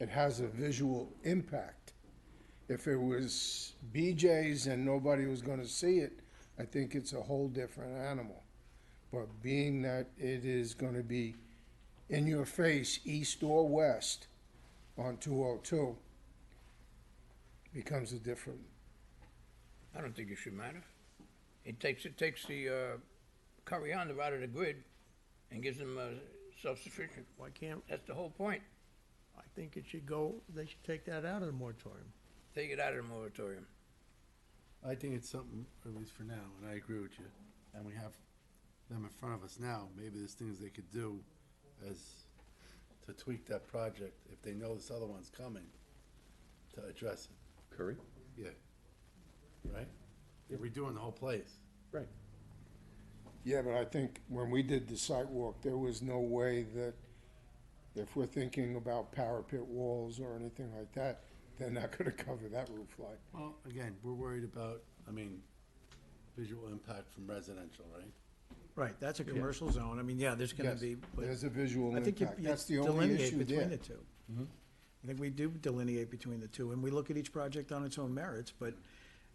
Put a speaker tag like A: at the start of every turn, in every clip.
A: it has a visual impact. If it was BJ's and nobody was gonna see it, I think it's a whole different animal. But being that it is gonna be in your face, east or west, on two oh two, becomes a different,
B: I don't think it should matter. It takes, it takes the, uh, Coriander out of the grid and gives them, uh, self-sufficient.
C: Why can't,
B: That's the whole point.
C: I think it should go, they should take that out of the moratorium.
B: Take it out of the moratorium.
D: I think it's something, at least for now, and I agree with you. And we have them in front of us now. Maybe there's things they could do as, to tweak that project if they know this other one's coming, to address it.
E: Curry?
D: Yeah. Right? They're redoing the whole place.
E: Right.
A: Yeah, but I think when we did the site walk, there was no way that if we're thinking about parapet walls or anything like that, they're not gonna cover that roof line.
D: Well, again, we're worried about, I mean, visual impact from residential, right?
C: Right, that's a commercial zone, I mean, yeah, there's gonna
A: Yes,
C: be, but
A: There's a visual
C: I think you
A: impact,
C: you
A: that's the only
C: delineate
A: issue
C: between
A: there.
C: the two. I think we do delineate between the two, and we look at each project on its own merits, but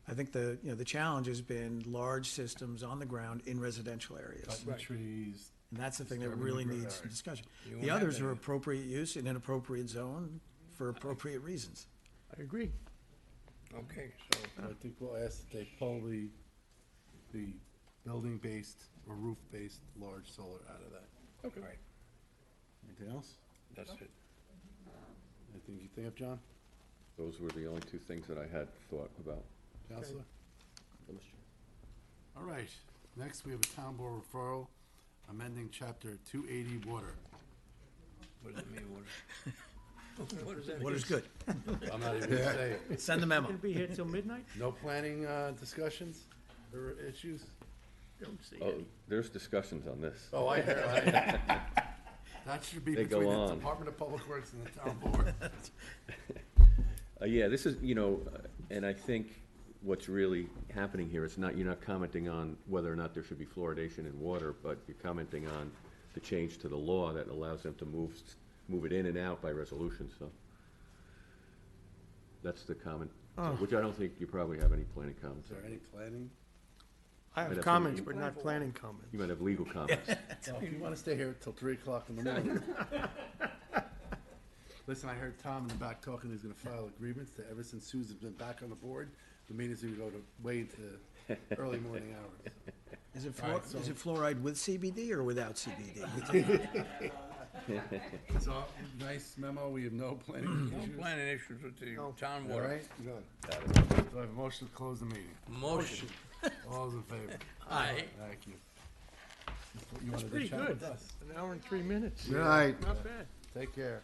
C: I think the, you know, the challenge has been large systems on the ground in residential areas.
D: Cutting trees.
C: And that's the thing that
D: Disturbing
C: really
D: the
C: needs
D: ground.
C: discussion.
B: You won't
C: The
B: have
C: others
B: that
C: are
B: here.
C: appropriate use in an appropriate zone for appropriate reasons.
D: I agree.
B: Okay, so,
D: I think we'll ask that they pull the, the building-based or roof-based large solar out of that.
B: all right,
D: Anything else?
B: that's it.
D: Anything you think of, John?
E: Those were the only two things that I had thought about.
D: Counselor? All right, next we have a town board referral amending chapter two eighty water.
B: What does that mean, what? What does that mean?
C: What is good?
D: I'm not even gonna say it.
C: Send the memo.
F: Be here till midnight?
D: No planning, uh, discussions or issues?
F: Don't see
E: Oh,
F: it.
E: there's discussions on this.
D: Oh, I hear, I hear. That should be
E: They go
D: between the
E: on.
D: Department of Public Works and the town board.
E: Uh, yeah, this is, you know, uh, and I think what's really happening here is not, you're not commenting on whether or not there should be fluoridation in water, but you're commenting on the change to the law that allows them to move, s- move it in and out by resolution, so. That's the comment, so- which I don't think you probably have any planning comments
D: Is
E: on.
D: there any planning?
F: I
E: Right,
F: have
E: that's
F: comments,
E: what
F: but not planning comments.
E: You might have legal comments.
D: Well, if you wanna stay here till three o'clock in the morning. Listen, I heard Tom in the back talking, he's gonna file a grievance that ever since Susan's been back on the board, the meetings are gonna go to, way into early morning hours.
C: Is it fluor, is it fluoride with CBD or without CBD?
D: It's all, nice memo, we have no planning
B: No
D: issues.
B: planning issues with the town
D: All
B: water.
D: right, good. Do I have a motion to close the meeting?
B: Motion,
D: All those in favor?
B: aye.
D: Thank you. You wanted to
F: Pretty
D: chat
F: good.
D: with us?
F: An hour and three minutes.
D: Good night.
F: Not bad.
D: Take care.